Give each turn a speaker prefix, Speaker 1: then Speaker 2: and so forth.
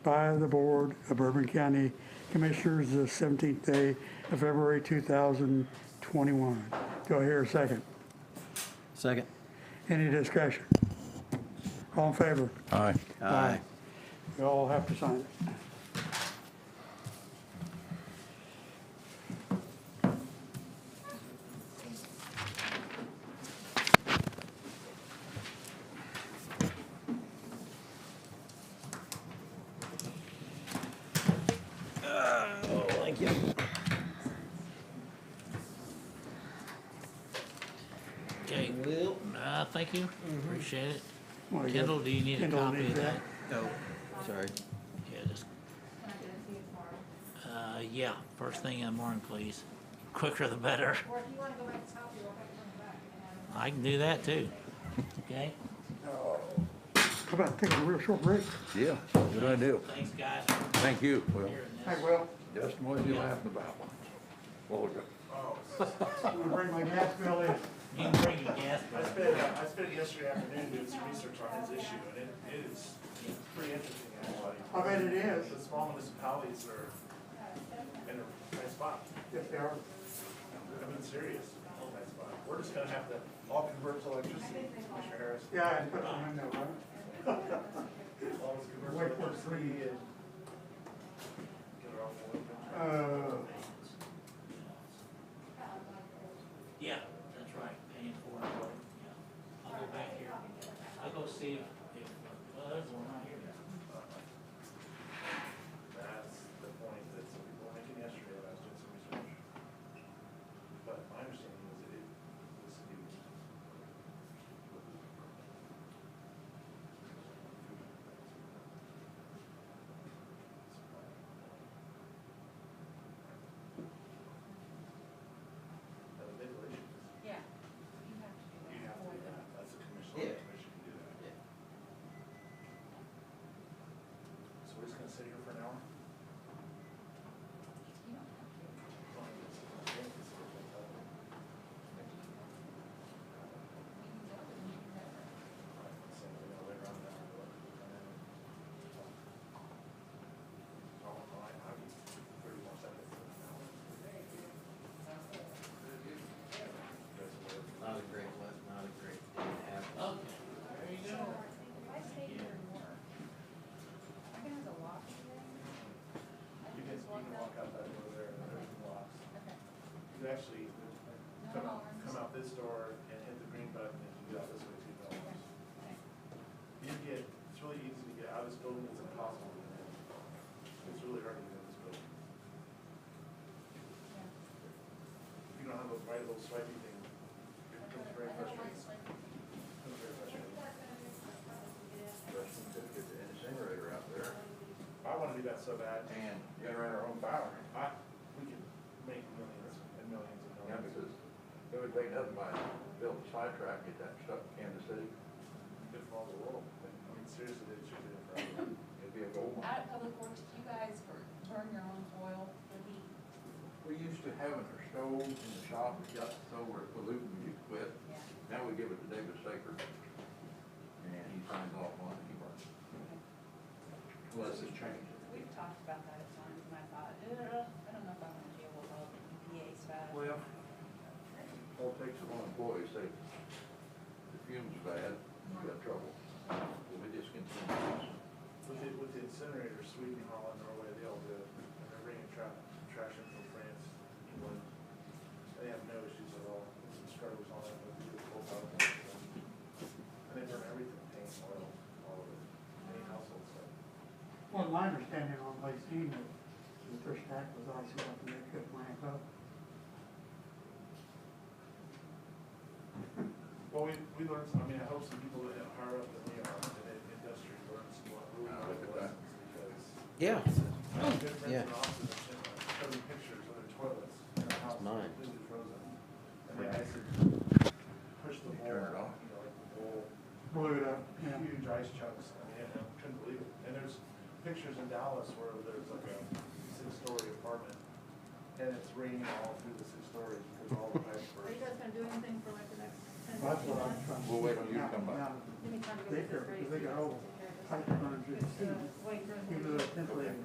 Speaker 1: by the Board of Bourbon County Commissioners the 17th day of February 2021. Do I hear a second?
Speaker 2: Second.
Speaker 1: Any discussion? All in favor?
Speaker 3: Aye.
Speaker 2: Aye.
Speaker 1: You all have to sign it.
Speaker 2: Thank you.
Speaker 4: Okay, Will, uh, thank you, appreciate it.
Speaker 1: Well, you got-
Speaker 4: Kendall, do you need a
Speaker 1: Kendall
Speaker 4: copy
Speaker 1: needs
Speaker 4: of that?
Speaker 2: Oh, sorry.
Speaker 4: Yeah, just, uh, yeah, first thing in the morning, please. Quicker the better.
Speaker 5: Or if you want to go back to top, you'll have to come back and have
Speaker 4: I can do that too. Okay?
Speaker 1: How about taking a real short break?
Speaker 3: Yeah, good idea.
Speaker 4: Thanks, guys.
Speaker 3: Thank you, Will.
Speaker 4: Here and
Speaker 1: Hey, Will,
Speaker 3: Justin, what are you laughing about? What was it?
Speaker 1: I'm gonna bring my gas bill in.
Speaker 4: You can bring your gas,
Speaker 6: I
Speaker 4: but
Speaker 6: spent, I spent yesterday afternoon doing some research on this issue, and it it is pretty interesting, actually.
Speaker 1: I bet it is.
Speaker 6: The small municipalities are in a tight spot.
Speaker 1: Yes, they are.
Speaker 6: I mean, serious, tight spot. We're just gonna have to all convert to electricity, Commissioner Harris.
Speaker 1: Yeah, I put them in there, right?
Speaker 6: All of us convert to
Speaker 1: Wait for
Speaker 6: electricity
Speaker 1: three.
Speaker 6: and get it all going.
Speaker 1: Uh,
Speaker 4: yeah, that's right, paying for it. Yeah. I'll go back here. I'll go see if, if, well, there's one right here.
Speaker 6: That's the point that some people were making yesterday when I was doing some research. But my understanding was that it was used. That was their relation.
Speaker 5: it. Yeah. You have to do that.
Speaker 6: You have to do that. That's a commission,
Speaker 2: Yeah.
Speaker 6: the commission can do that. So we're just gonna sit here for an hour?
Speaker 5: You don't have to. You can go, but you can never.
Speaker 2: Not a great, not a great day to have.
Speaker 4: Okay, there you go.
Speaker 5: If I stay here and work, I'm gonna have to walk today. I
Speaker 6: You
Speaker 5: can
Speaker 6: can,
Speaker 5: just walk
Speaker 6: walk
Speaker 5: out.
Speaker 6: out that door there, and there's blocks.
Speaker 5: Okay.
Speaker 6: You actually come out, come out this door and hit the green button, and you get out this way two dollars. You get, it's really easy to get out of this building, it's impossible to get in. It's really hard to get in this building. If you don't have those right little swipey thing, it becomes very frustrating. Becomes very frustrating.
Speaker 3: Justin took the incinerator out there
Speaker 6: I wanna do that so bad,
Speaker 3: and we ran our own power.
Speaker 6: I, we could make millions and millions and
Speaker 3: Yeah,
Speaker 6: millions.
Speaker 3: because it would make nothing by building a sidetrack, get that stuff in Kansas City.
Speaker 6: Good for all the world, but, I mean, seriously, they should do it for everyone.
Speaker 3: It'd be a gold mine.
Speaker 5: Out of public works, do you guys bur- burn your own oil for heat?
Speaker 3: We used to having our stoves in the shop, it got so we're polluting, you quit.
Speaker 5: Yeah.
Speaker 3: Now we give it to David Saker. And he signs off on it, he runs. Plus it's changed.
Speaker 7: We've talked about that at times, and I thought, "Ugh, I don't know if I want to deal with all the EPA stuff.
Speaker 3: Well, all it takes is one employee, say, the fume's bad, you got trouble. We just continue.
Speaker 6: With the, with the incinerators, Sweden, Holland, Norway, they all do it, and they're bringing tra- trash in from France, England. They have no issues at all, There's some scrubbers on it, but they do full power. And they burn everything, paint, oil, all of it, any household stuff.
Speaker 1: Well, my understanding on Lacey, the first act was also up to make up my vote.
Speaker 6: Well, we, we learned some, I mean, I hope some people that are higher up than we are in the industry learn some more really
Speaker 3: Ah, look
Speaker 6: good
Speaker 3: at that.
Speaker 6: lessons, because
Speaker 2: Yeah.
Speaker 6: I have good friends
Speaker 2: yeah.
Speaker 6: in Austin that sent us showing pictures of their toilets in their house
Speaker 2: mine.
Speaker 6: completely frozen. And they had to push the bowl, you
Speaker 3: Turn it
Speaker 6: know,
Speaker 3: off.
Speaker 6: like the bowl,
Speaker 1: Blew it up, yeah.
Speaker 6: huge ice chunks, I mean, I couldn't believe it. And there's pictures in Dallas where there's like a six-story apartment, and it's raining all through the six stories because all the pipes
Speaker 7: Are
Speaker 6: burst.
Speaker 7: you guys gonna do anything for like the next ten,
Speaker 1: That's what
Speaker 7: fifteen
Speaker 1: I'm
Speaker 7: months?
Speaker 1: trying.
Speaker 3: We'll wait till you come back.
Speaker 1: Now- now-
Speaker 7: Give me time to
Speaker 1: They
Speaker 7: get this
Speaker 1: care,
Speaker 7: ready.
Speaker 1: they got old.
Speaker 7: Take care of this.
Speaker 1: five hundred
Speaker 5: It's, uh,
Speaker 1: feet.
Speaker 5: Wait, for
Speaker 1: You know,
Speaker 5: the-
Speaker 1: that